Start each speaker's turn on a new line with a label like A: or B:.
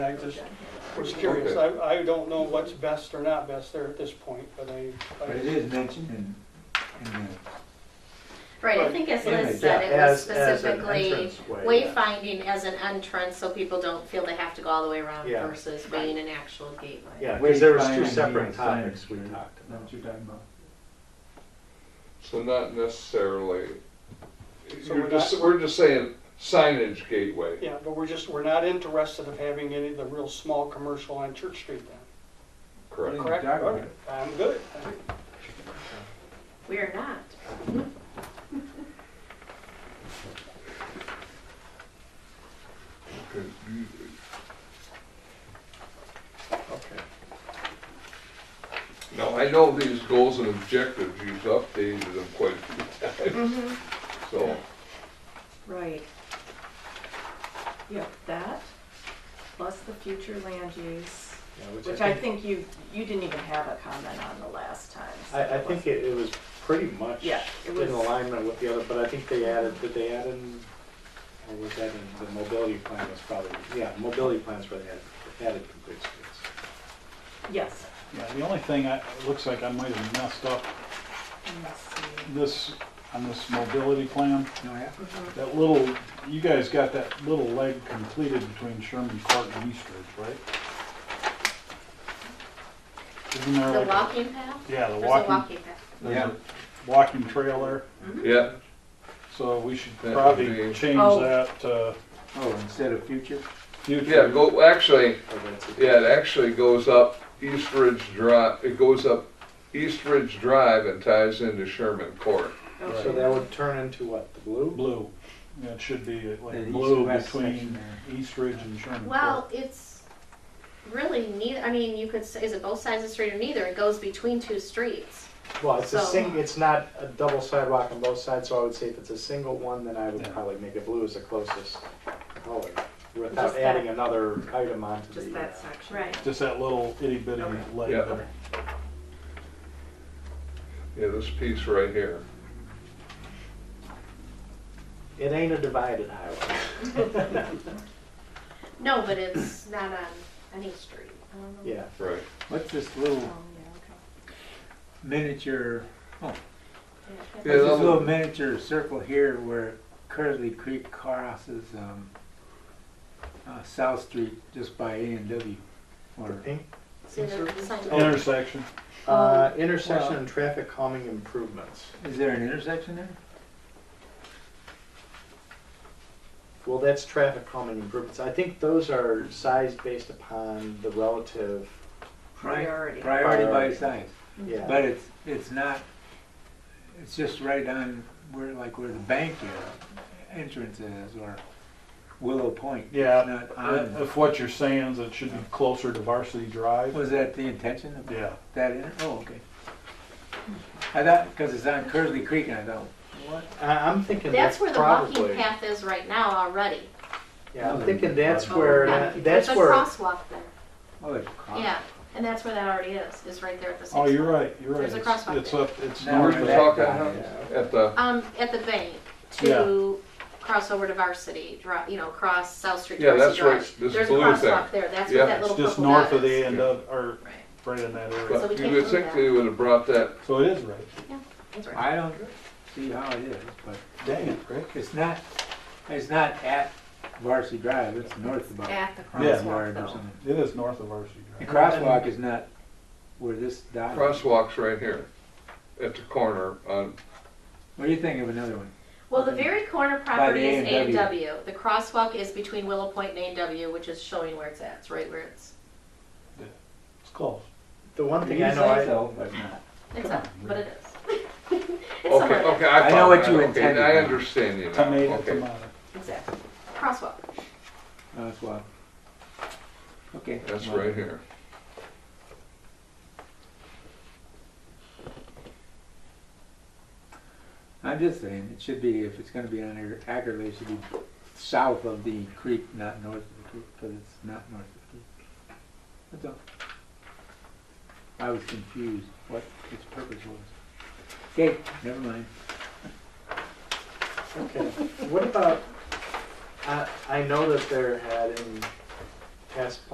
A: I just was curious, I, I don't know what's best or not best there at this point, but I,
B: But it
A: I-
B: is mentioned in, in the,
C: Right, I
D: Right.
C: think as
B: Image,
C: Liz said, it was
D: As- as an
C: specifically
D: entranceway, yeah.
C: wayfinding as an entrance, so people don't feel they have to go all the way around
D: Yeah.
C: versus being an actual gateway.
D: Yeah, because there was two
B: Wayfinding
D: separate topics we
B: signage,
D: talked
B: not
D: about.
B: what you're talking about.
E: So not necessarily,
A: So
E: you're
A: we're
E: just,
A: not-
E: we're just saying signage gateway.
A: yeah, but we're just, we're not interested of having any of the real small commercial on Church Street then,
E: Correct.
A: correct?
B: Exactly.
A: Okay, I'm good.
C: We are not.
A: Okay.
E: Now, I know these goals and objectives, you've updated them quite a few times,
A: Mm-hmm.
E: so.
F: Right. Yep, that, plus the future land use,
D: Yeah,
F: which I think you, you didn't even have a comment on the last time. so
D: I, I think it, it was pretty much
F: Yeah, it
D: in
F: was-
D: alignment with the other, but I think they added, did they add in, or was that in, the mobility plan was probably, yeah, mobility plans where they added, added complete streets.
F: Yes.
G: Yeah, the only thing I, it looks like I might have messed up
F: Let me see.
G: this, on this mobility plan,
B: No, yeah.
G: that little, you guys got that little leg completed between Sherman Park and East Ridge, right? Isn't there
C: The
G: like? a-
C: walking path?
G: Yeah, the
C: There's a
G: walking,
C: walking path.
G: there's a walking trail there,
E: Yeah,
G: so we should
E: That would be-
G: probably change
F: Oh.
G: that to
B: Oh, instead of future?
G: future.
E: yeah, go, actually,
D: Or Oh, that's it.
E: yeah, it actually goes up East Ridge Drive, it goes up East Ridge Drive and ties into Sherman Court.
F: Okay.
D: So that would turn into what, the blue?
G: Blue, Yeah, it should be
B: The
G: like
B: east
G: blue
B: west section
G: between
B: there.
G: East Ridge and Sherman
C: Well,
G: Park.
C: it's really neither, I mean, you could say, is it both sides of the street or neither? It goes between two streets.
D: Well, it's a
C: So-
D: sing, it's not a double sidewalk on both sides, so I would say if it's a single one, then I would
G: Yeah.
D: probably make it blue as the closest color,
F: Just
D: without
F: that-
D: adding another item onto the.
F: Just
D: uh,
F: that section.
G: Just that little itty bitty
F: Okay.
G: leg
E: Yeah.
G: there.
E: Yeah, this piece right here.
D: It ain't a divided highway.
C: No, but it's not on any street. I don't know.
D: Yeah,
E: Right.
B: What's this
F: Oh,
B: little
F: yeah,
B: miniature,
E: Yeah,
C: Yeah,
B: what's
E: that
B: this little
E: would-
B: miniature circle here where Curly Creek crosses, um, uh, South Street just by A and W?
D: the
B: Or,
D: pink.
C: See the sign?
G: Intersection,
C: Um,
D: Uh, intersection and traffic calming improvements.
B: is there an intersection there?
D: Well, that's traffic calming improvements. I think those are sized based upon the relative,
F: Priority.
B: Priority by
E: Uh,
D: Priority.
B: size,
C: Mm-hmm.
D: yeah.
B: but it's, it's not, it's just right on where, like where the bank is, entrance is, or Willow Point. It's
G: Yeah,
B: Not on.
G: If what you're saying is it should be closer to Varsity Drive,
B: Was that the intention of
G: yeah.
B: that in? Oh, okay. I thought, because it's on Curly Creek, and I thought, what?
D: I, I'm thinking that's
C: That's where the walking
D: probably,
C: path is right now already.
D: yeah, I'm thinking that's
B: Oh,
D: where,
C: Yeah,
D: that- that's
C: There's a
D: where,
C: crosswalk there.
B: Oh, it's cross.
C: Yeah, and that's where that already is, is right there at the six.
G: Oh, you're right, you're right.
C: There's a
G: It's-
C: crosswalk
G: It's
C: there.
G: up, it's
B: Now
G: north
B: we're
E: We're
G: of
B: back.
E: talking
B: Yeah.
E: at the,
C: Um, at the bank to cross over to Varsity, Drive. you know, cross South Street. to
E: Yeah,
C: Varsity
E: that's where
C: Drive.
E: it's- this
C: There's a
E: blue
C: crosswalk
E: thing.
C: there, that's
E: Yeah.
C: what that
G: It's
C: little
G: just
C: purple
G: north
C: dot
G: of
C: is.
G: the end of, or
C: Right,
G: right in that area.
C: So we
E: but you
C: can't
E: would
C: do
E: think
C: that.
E: they would have brought that,
G: So it is right.
C: that's right.
B: I don't see how it is, but
G: Dang it, Rick.
B: it's not, it's not at Varsity Drive, it's north of about
C: At the
B: hundred
C: crosswalk
B: yard or
C: though.
B: something.
G: It is north of Varsity
B: The
G: Drive.
B: crosswalk is not where this dot. is.
E: crosswalk's right here at the corner on,
B: What do you think of another one?
C: Well, the very corner property is A and
B: A&W.
C: W. The crosswalk is between Willow Point and A and W, which is showing where it's at, it's right where it's,
G: It's close.
D: the one thing
B: You
D: I know,
B: say
D: I,
B: so, but not.
C: it's
G: Come
C: not,
G: on,
C: but it is. It's
E: okay,
C: somewhere there,
E: okay, I
B: I know
E: found
B: what
E: that.
B: you
E: Okay,
B: intended.
E: I understand you now,
G: Tomato,
E: okay.
G: tomato.
C: exactly. Crosswalk,
B: Crosswalk. Okay.
E: That's right here.
B: I'm just saying, it should be, if it's gonna be on here accurately, it should be south of the creek, not north of the creek, because it's not north of the creek. That's all. I was confused what its purpose was. Okay, never mind.
D: okay, what about, I, I know that there had in past